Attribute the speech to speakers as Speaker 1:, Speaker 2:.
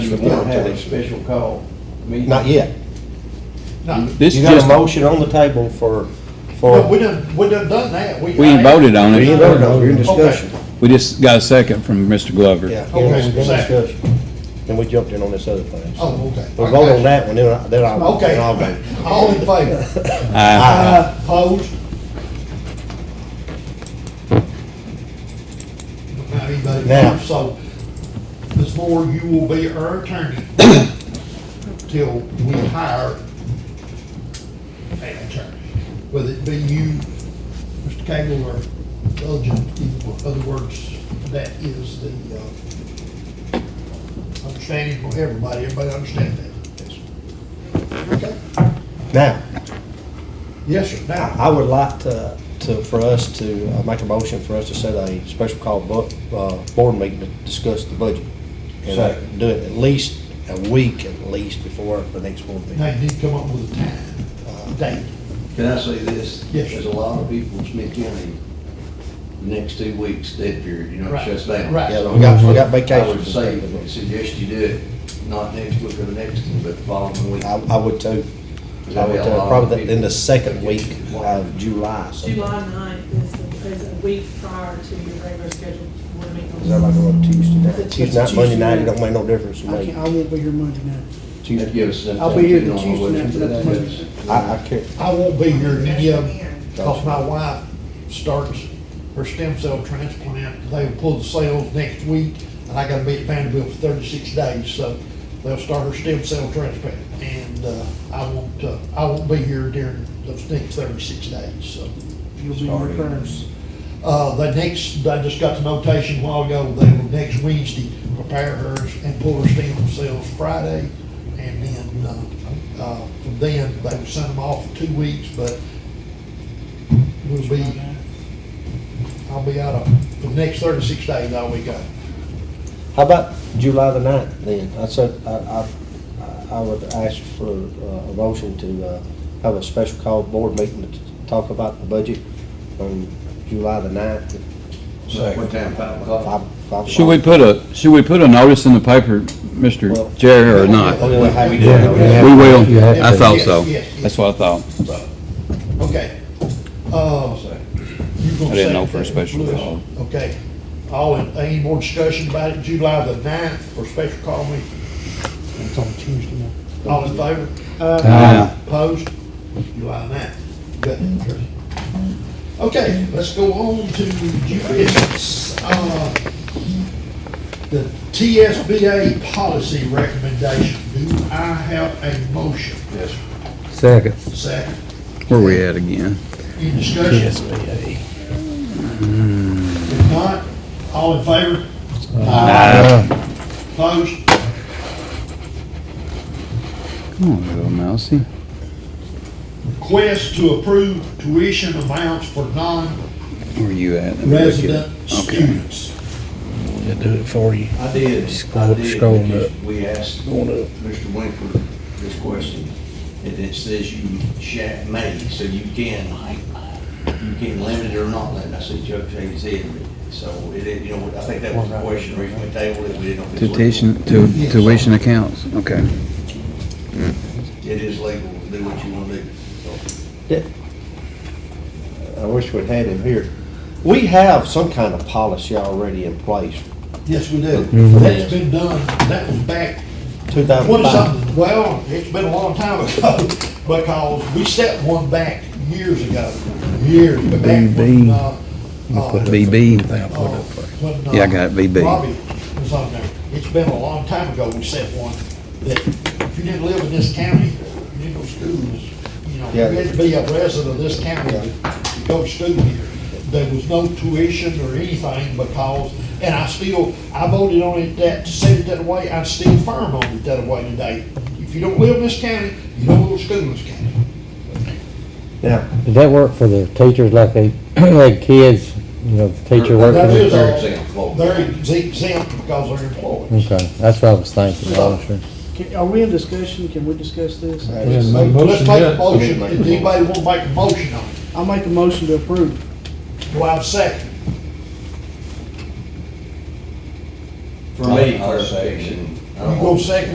Speaker 1: the
Speaker 2: You've got to
Speaker 1: warrant
Speaker 2: have a
Speaker 1: today.
Speaker 2: special call meeting.
Speaker 3: Not yet.
Speaker 4: This
Speaker 3: You got
Speaker 4: just-
Speaker 3: a motion on the table for,
Speaker 1: No, we
Speaker 3: for,
Speaker 1: done, we done done that.
Speaker 4: We ain't voted on
Speaker 3: we ain't
Speaker 4: it.
Speaker 3: voted on, we're in discussion.
Speaker 4: We just got a second from Mr. Glover.
Speaker 3: Yeah,
Speaker 1: Okay,
Speaker 3: we're in
Speaker 1: second.
Speaker 3: discussion. And we jumped in on this other thing. so.
Speaker 1: Oh, okay.
Speaker 3: We'll vote on that one, then I- then I'll,
Speaker 1: Okay, Uh,
Speaker 3: then I'll vote.
Speaker 1: all in favor?
Speaker 4: Aye.
Speaker 1: Opposed? Don't have anybody
Speaker 3: Now.
Speaker 1: vote, so, Ms. Moore, you will be our attorney till we hire an attorney, whether it be you, Mr. Cagle, or Elgin, in other words, that is the, uh, understanding from everybody, everybody understand that? Okay.
Speaker 3: Now,
Speaker 1: Yes, sir, now.
Speaker 3: I would like to, to, for us to, uh, make a motion for us to set a special call bu, uh, board meeting to discuss the budget. And uh,
Speaker 2: Second.
Speaker 3: do it at least a week at least before the next board meeting.
Speaker 1: Now you need to come up with a time, uh, date.
Speaker 2: Can I say this?
Speaker 1: Yes, sir.
Speaker 2: There's a lot of people in Smith County, the next two weeks, dead period, you know, it
Speaker 1: Right,
Speaker 2: shuts down.
Speaker 1: right.
Speaker 3: Yeah, we got, we got
Speaker 2: I
Speaker 3: vacations.
Speaker 2: would
Speaker 3: and
Speaker 2: say,
Speaker 3: stuff, but-
Speaker 2: suggest you do it, not next week or the next, one, but the following week.
Speaker 3: I, I would too. I would too, probably the- in the second week of July. so-
Speaker 5: July ninth is, the- is a week prior to your regular scheduled board meeting.
Speaker 3: Is that like on Tuesday night?
Speaker 6: It's a
Speaker 3: Tuesday night,
Speaker 6: Tuesday
Speaker 3: Monday night, it
Speaker 6: night.
Speaker 3: don't make no difference to
Speaker 6: I can't,
Speaker 3: me.
Speaker 6: I won't be here Monday night.
Speaker 2: That'd give us enough
Speaker 6: I'll
Speaker 2: time
Speaker 6: be
Speaker 2: to
Speaker 6: here
Speaker 2: get
Speaker 6: the
Speaker 2: on our
Speaker 6: Tuesday
Speaker 2: budget.
Speaker 6: after that Monday.
Speaker 3: I, I care.
Speaker 1: I won't be here in any of, because my wife starts her stem cell transplant. They'll pull the cells next week, and I gotta be at Vanderbilt for thirty-six days, so they'll start her stem cell transplant. And, uh, I won't, uh, I won't be here during those next thirty-six days, so.
Speaker 6: You'll be in the prayers.
Speaker 1: Uh, the next, I just got the notation a while ago, they will next Wednesday prepare hers and pull her stem cells Friday. And then, uh, uh, from then, they will send them off for two weeks, but we'll be, I'll be out of, for the next thirty-six days, I'll be gone.
Speaker 3: How about July the ninth then? I said, I, I, I would ask for uh, a motion to, uh, have a special call board meeting to t- talk about the budget on July the ninth.
Speaker 2: What time, five o'clock?
Speaker 3: Five- five
Speaker 4: Should we put a, should we put a notice in the paper,
Speaker 3: Well-
Speaker 4: Mr. Jerry, or not?
Speaker 3: Oh, yeah, have-
Speaker 2: We do.
Speaker 3: yeah.
Speaker 4: We will.
Speaker 7: You have
Speaker 4: I
Speaker 7: to.
Speaker 4: thought so.
Speaker 1: Yes, yes, yes.
Speaker 4: That's what I thought.
Speaker 1: So, okay. Uh, you gonna
Speaker 4: I didn't
Speaker 1: say
Speaker 4: know for a
Speaker 1: that,
Speaker 4: special
Speaker 1: Lewis?
Speaker 4: call.
Speaker 1: Okay. All, in- any more discussion about it? July the ninth for special call meeting?
Speaker 6: It's on Tuesday night.
Speaker 1: All in favor?
Speaker 4: Aye.
Speaker 1: Opposed? July ninth. Got that, Tricia? Okay, let's go on to GPS. Uh, The TSBA policy recommendation. Do I have a motion? Yes.
Speaker 7: Second.
Speaker 1: Second.
Speaker 4: Where we at again?
Speaker 1: Any discussion? TSBA. If not, all in favor? Uh, Aye. Opposed?
Speaker 4: Come on, little mousey.
Speaker 1: Request to approve tuition amounts for non-resident
Speaker 4: Where you at? Let me look at it. Okay.
Speaker 1: students.
Speaker 7: It'll do it for you.
Speaker 2: I did, I
Speaker 7: Scroll-
Speaker 2: did,
Speaker 7: scroll
Speaker 2: because
Speaker 7: up.
Speaker 2: we asked
Speaker 7: Going up.
Speaker 2: Mr. Winkler this question, and it says you sha may, so you can, you can limit it or not limit, I said Chuck Chase said, so it, it- you know, I think that was the question, originally tabled, it, we didn't know. if it's legal.
Speaker 4: Tuition, tu- tuition accounts, okay.
Speaker 2: It is legal, do what you wanna do, so.
Speaker 3: I wish we'd had him here. We have some kind of policy already in place,
Speaker 1: Yes, we do.
Speaker 3: Mhm.
Speaker 1: That's been done, that was back
Speaker 3: two thousand
Speaker 1: Twenty
Speaker 3: five.
Speaker 1: something, well, it's been a long time ago, because we set one back years ago, years back. when,
Speaker 7: BB.
Speaker 1: uh, uh,
Speaker 4: BB.
Speaker 1: uh, when, uh,
Speaker 4: Yeah, I got it, BB.
Speaker 1: Robbie was on there. It's been a long time ago we set one, that if you didn't live in this county, you didn't go to school, you know, you had to be a resident of this county to go to school here. There was no tuition or anything because, and I still, I voted on it that, said it that way, I'm still firm on it that way today. If you don't live in this county, you don't go to school in this county.
Speaker 3: Now,
Speaker 7: Did that work for the teachers, like they, like kids, you know, the teacher working?
Speaker 1: That is
Speaker 7: with-
Speaker 2: They're
Speaker 1: all,
Speaker 2: exempt, well.
Speaker 1: they're exempt because they're employees.
Speaker 7: Okay, that's what I was thinking, I'm sure.
Speaker 6: Can- Are we in discussion? Can we discuss this?
Speaker 1: Let's make a motion, Does anybody want to make a motion on it?
Speaker 6: I'll make a motion to approve.
Speaker 1: Do I have a second?
Speaker 2: For me, clarification, I I don't
Speaker 1: You go second